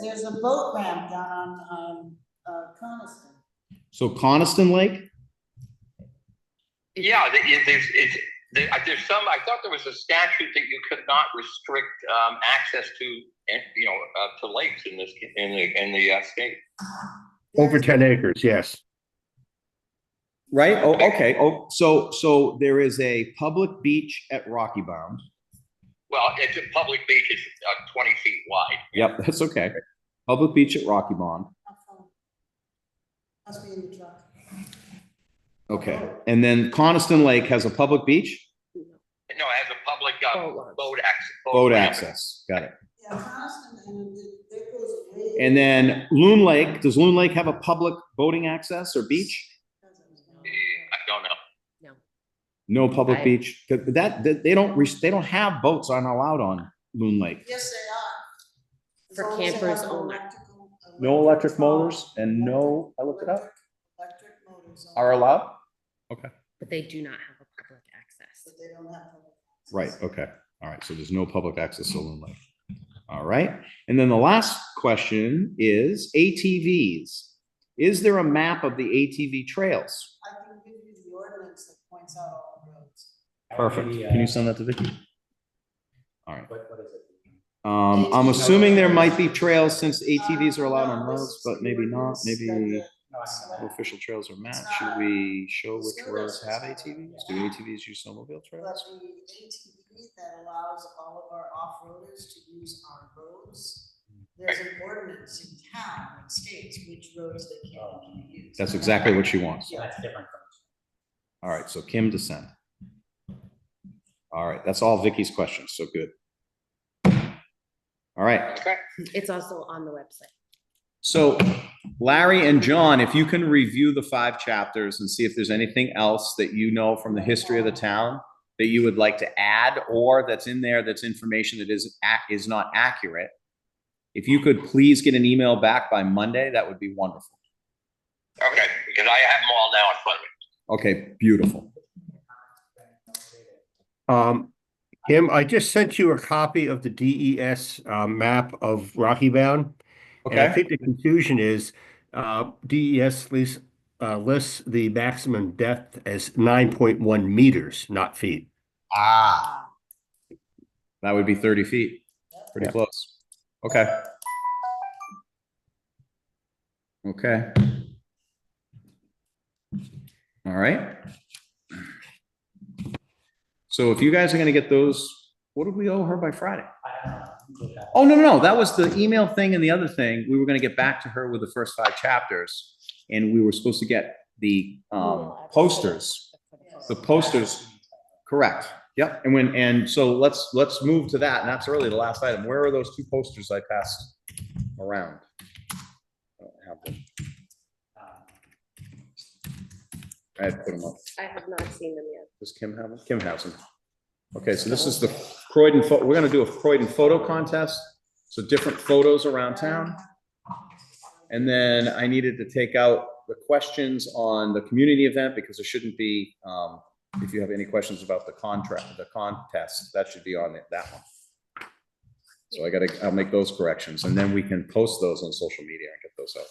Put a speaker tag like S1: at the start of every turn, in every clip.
S1: There's a boat ramp down on, um, uh, Coniston.
S2: So Coniston Lake?
S3: Yeah, the- it- there's, it's, there- I- there's some, I thought there was a statute that you could not restrict, um, access to, eh, you know, uh, to lakes in this, in the, in the uh, state.
S4: Over ten acres, yes.
S2: Right? Oh, okay. Oh, so, so there is a public beach at Rocky Bound.
S3: Well, it's a public beach, it's, uh, twenty feet wide.
S2: Yep, that's okay. Public beach at Rocky Bound.
S1: Must be in the truck.
S2: Okay. And then Coniston Lake has a public beach?
S3: No, it has a public,
S5: Oh,
S3: uh, boat access.
S2: Boat
S3: ramp.
S2: access. Got it.
S1: Yeah, Coniston, and it- it goes way.
S2: And then Loon Lake, does Loon Lake have a public boating access or beach?
S3: Eh, I don't know.
S2: No public
S5: Right.
S2: beach. That, that- they don't, res- they don't have boats aren't allowed on Loon Lake.
S1: Yes, they are. As
S5: For
S1: long as they
S5: campers
S1: have
S5: only.
S1: electrical- uh,
S2: No electric motors and no- I looked it up.
S1: Electric electric motors. only,
S2: allowed?
S5: But they do not have a public access.
S1: But they don't have. public access.
S2: Right, okay. All right, so there's no public access to Loon Lake. All right, and then the last question is ATVs. Is there a map of the ATV trails?
S1: I can give you the ordinance that points out all the roads.
S2: Perfect. Can you send that to Vicky? All right.
S6: uh, What, what is it?
S2: Um, I'm assuming there might be trails since ATVs are allowed
S1: Uh,
S2: on roads, but maybe not, maybe
S6: No, I don't
S2: where
S6: know.
S2: official trails are mapped. Should we show which roads have ATVs? Do ATVs use snowmobile
S1: But
S2: trails?
S1: the ATV that allows all of our off-roaders to use our roads, there's an ordinance in town that states which roads they can and can't use.
S2: That's exactly what she wants.
S6: Yeah, that's different. from-
S2: All right, so Kim to send. All right, that's all Vicky's questions, so good. All right,
S3: Okay.
S5: It's also on the website.
S2: so Larry and John, if you can review the five chapters and see if there's anything else that you know from the history of the town that you would like to add or that's in there, that's information that is, ac- is not accurate. If you could please get an email back by Monday, that would be wonderful.
S3: Okay, because I have them all now in front of me.
S2: Okay, beautiful.
S4: Um, Kim, I just sent you a copy of the DES uh, map of Rocky Bound. And I
S2: Okay,
S4: think the confusion is uh, DES lists, uh, lists the maximum depth as 9.1 meters, not feet.
S2: ah,
S1: Ah,
S2: that would be thirty feet, pretty close. Okay. Okay. All right. So if you guys are gonna get those, what did we owe her by Friday?
S6: I don't know. You look at it.
S2: Oh, no, no, no, that was the email thing and the other thing. We were gonna get back to her with the first five chapters. And we were supposed to get the um posters, the posters, correct. Yep, and when, and so let's, let's move to that, and that's really the last item. Where are those two posters I passed around? I don't have them.
S6: Um,
S2: I had put them up.
S5: I have not seen them yet.
S2: Does Kim have them? Kim has them. Okay, so this is the Croydon, pho- we're gonna do a Croydon photo contest, so different photos around town. And then I needed to take out the questions on the community event, because there shouldn't be, um, if you have any questions about the contract, the contest, that should be on it, that one. So I gotta, I'll make those corrections, and then we can post those on social media and get those out.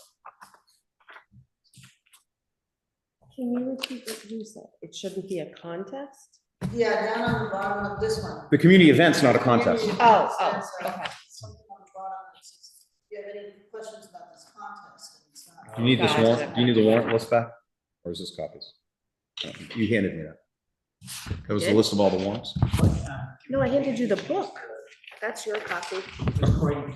S5: Can you repeat what you said? It shouldn't be a contest?
S1: Yeah, down on the bottom of this one.
S2: The community event's not a contest.
S5: Oh, oh,
S1: That's, uh,
S5: okay.
S1: Something on the bottom that says, "Do you have any questions about this contest? And it's not-
S2: You need this
S5: Oh, Gotcha.
S2: warrant, you need the warrant list back, or is this copies? Uh, You handed me that. That was the
S5: Did?
S2: list of all the warrants.
S5: No, I handed you the book. That's your copy.
S6: Recording.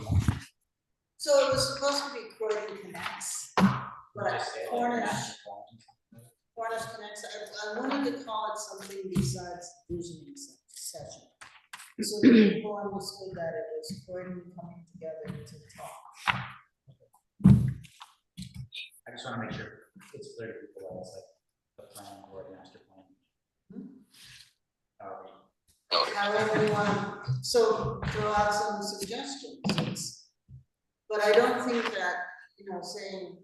S1: So it was supposed to be Croydon Connects, but
S6: oh,
S1: Cornish, Cornish Connects, I, I wanted to call it something besides visioning se- session. So that people understood that it was Croydon coming together to talk.
S6: I just wanna make sure it's clear to people that it's like the plan or the master plan.
S5: Hmm.
S6: Um, Are we-
S1: However, you want, so throw out some suggestions, it's- but I don't think that, you know, saying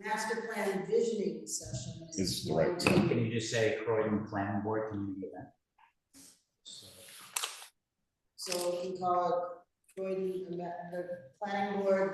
S1: master plan visioning session
S2: Is
S1: is
S2: the right
S1: going to
S2: term.
S6: Can you just say Croydon Planning uh, Board community event? So,
S1: So we can call it Croydon, the planning board